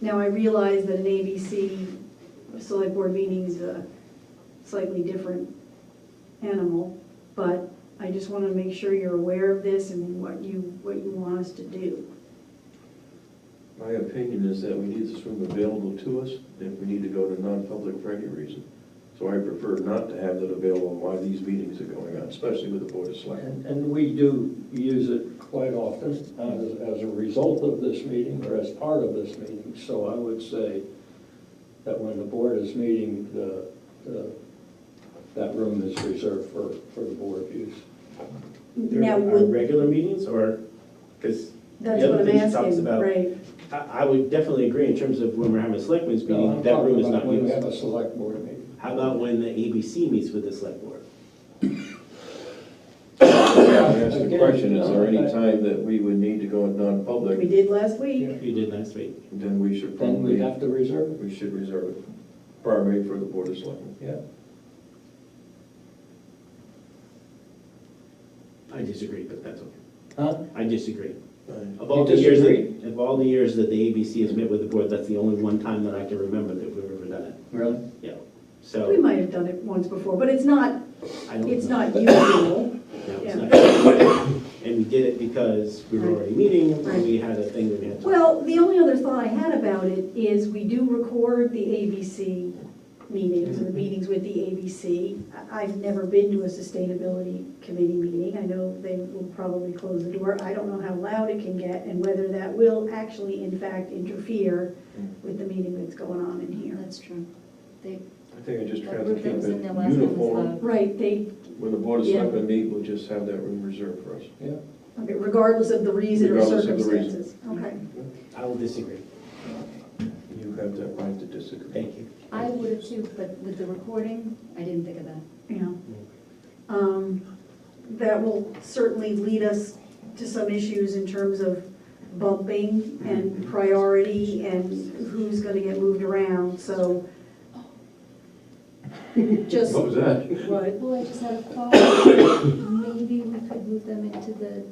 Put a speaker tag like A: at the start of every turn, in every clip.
A: Now, I realize that an ABC select board meeting's a slightly different animal, but I just want to make sure you're aware of this and what you, what you want us to do.
B: My opinion is that we need this room available to us if we need to go to non-public for any reason. So I prefer not to have that available while these meetings are going on, especially with the Board of Selectmen.
C: And, and we do use it quite often as, as a result of this meeting or as part of this meeting. So I would say that when the board is meeting, the, the, that room is reserved for, for the board use.
D: During
A: Now,
D: our
A: would-
D: regular meetings, or, because
A: that's
D: the other
A: what I'm
D: thing she talks
A: asking,
D: about-
A: right?
D: I, I would definitely agree in terms of when we're having a selectmen's
C: No, I'm
D: meeting, that room
C: talking
D: is
C: about
D: not
C: When we have
D: used.
C: a select board meeting.
D: How about when the ABC meets with the select board?
B: I asked the question, is there any time that we would need to go in
A: We
B: non-public,
A: did last week.
D: You did last week.
B: then we should
C: Then we
B: probably,
C: have to reserve it.
B: we should reserve it primarily for the Board of Selectmen.
C: Yeah.
D: I disagree, but that's okay.
C: Huh?
D: I disagree.
B: I-
D: Of all
C: You
D: the years, that-
C: disagree?
D: of all the years that the ABC has met with the board, that's the only one time that I can remember that we've ever done it.
C: Really?
D: Yeah,
A: We
D: so
A: might have done it once before, but it's not,
D: I don't.
A: it's
D: know.
A: not usual.
D: No,
A: yeah.
D: it's not. And we did it because we were
A: Right.
D: already meeting, and
A: Right.
D: we had a thing we had to.
A: Well, the only other thought I had about it is we do record the ABC meetings, or the meetings with the ABC. I- I've never been to a sustainability committee meeting. I know they will probably close the door. I don't know how loud it can get and whether that will actually in fact interfere with the meeting that's going on in here.
E: That's true. They,
B: I think I just
E: that
B: tried to
E: group
B: keep
E: that was
B: it
E: in there last time was
B: uniform.
E: loud.
A: Right, they,
B: When the Board of
A: Yeah.
B: Selectmen meet, we'll just have that room reserved for us.
C: Yeah.
A: okay, regardless of the reason or
B: Regardless of the reason.
A: circumstances. Okay.
D: I will disagree.
B: You have that right to disagree.
D: Thank you.
E: I would have too, but with the recording, I didn't think of that.
A: Yeah. Um, That will certainly lead us to some issues in terms of bumping
B: Mm-hmm.
A: and priority and who's gonna get moved around, so. Just,
B: What was that?
A: what,
E: Well, I just had a thought, maybe we could move them into the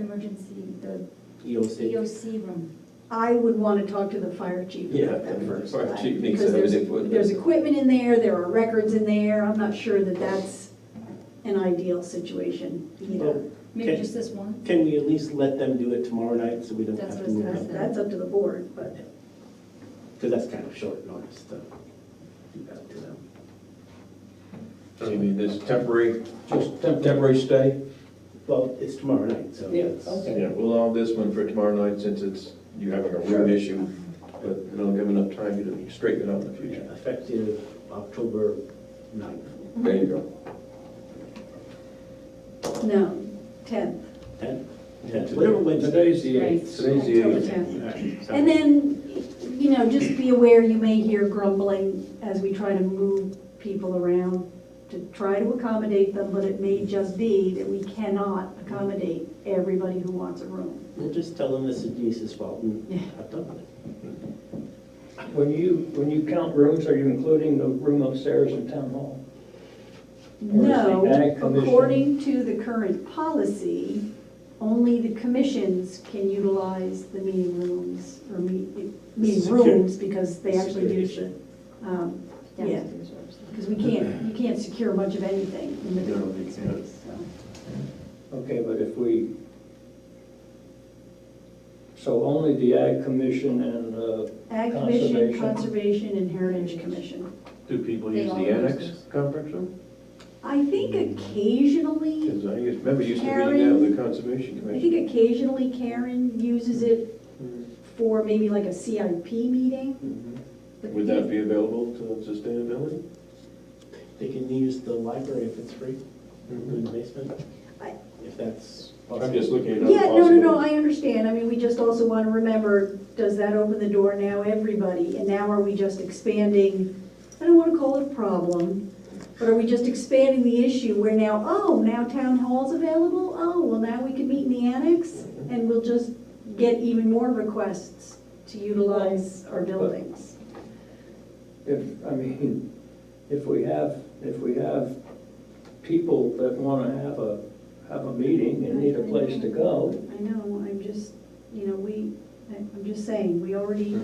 E: emergency, the
D: EOC.
E: EOC room.
A: I would wanna talk to the fire chief
B: Yeah,
A: about that first.
B: fire
A: I-
B: chief needs
A: because
B: to have
A: there's-
B: an input.
A: There's equipment in there, there are records in there, I'm not sure that that's an ideal situation either.
D: Well,
E: Maybe
D: Okay.
E: just this one?
D: Can we at least let them do it tomorrow night so we don't
E: That's
D: have to
E: what I was
D: move
E: gonna
D: them?
E: say.
A: That's up to the board, but.
D: Because that's kind of short notice to do that to them.
B: So You mean this temporary,
C: Just temporary.
B: temporary stay?
D: Well, it's tomorrow night, so.
C: Yeah,
D: it's-
C: okay.
B: Yeah, we'll allow this one for tomorrow night since it's, you're having a room issue, but it'll give enough time you to straighten it out in the future.
D: Yeah, Effective October 9th,
B: There you go.
A: No, tenth.
D: 10th, 10th, whatever Wednesday.
C: Today's the eighth.
B: Today's the
A: October
B: eighth.
A: tenth.
D: All right, so-
A: And then, you know, just be aware, you may hear grumbling as we try to move people around to try to accommodate them, but it may just be that we cannot accommodate everybody who wants a room.
D: We'll just tell them this is Denise's fault and
A: Yeah.
D: have done with it.
C: When you, when you count rooms, are you including the room upstairs in town hall? Or is the
A: No,
C: Ag Commission-
A: according to the current policy, only the commissions can utilize the meeting rooms, or meet- meeting
D: Secure-
A: rooms, because they actually
D: security
A: use the, um, yeah.
E: Downstairs or upstairs.
A: Because we can't, you can't secure much of anything in the
B: No, you
A: building
B: can't.
A: space, so.
C: Okay, but if we, so only the Ag Commission and, uh,
A: Ag Commission,
C: Conservation.
A: Conservation, and Heritage Commission.
B: Do people
E: They
B: use the
E: all use
B: annex
E: this.
B: conference room?
A: I think occasionally,
B: Because I used, remember it used to be now the Conservation
A: I
B: Commission.
A: think occasionally Karen uses it for maybe like a CIP meeting. but
B: Mm-hmm. Would that be available to sustainability?
D: They can use the library if it's free,
B: Mm-hmm.
D: in the
C: Mm-hmm.
D: basement,
A: I-
D: if that's possible.
B: I'm just looking at other
A: Yeah, no, no, no,
B: possibilities.
A: I understand. I mean, we just also want to remember, does that open the door now everybody? And now are we just expanding, I don't want to call it a problem, but are we just expanding the issue where now, oh, now town hall's available? Oh, well, now we can meet in the annex and we'll just get even more requests to utilize our buildings.
C: if, I mean, if we have, if we have people that wanna have a, have a meeting and need a place to go,
A: I know, I'm just, you know, we, I'm just saying, we already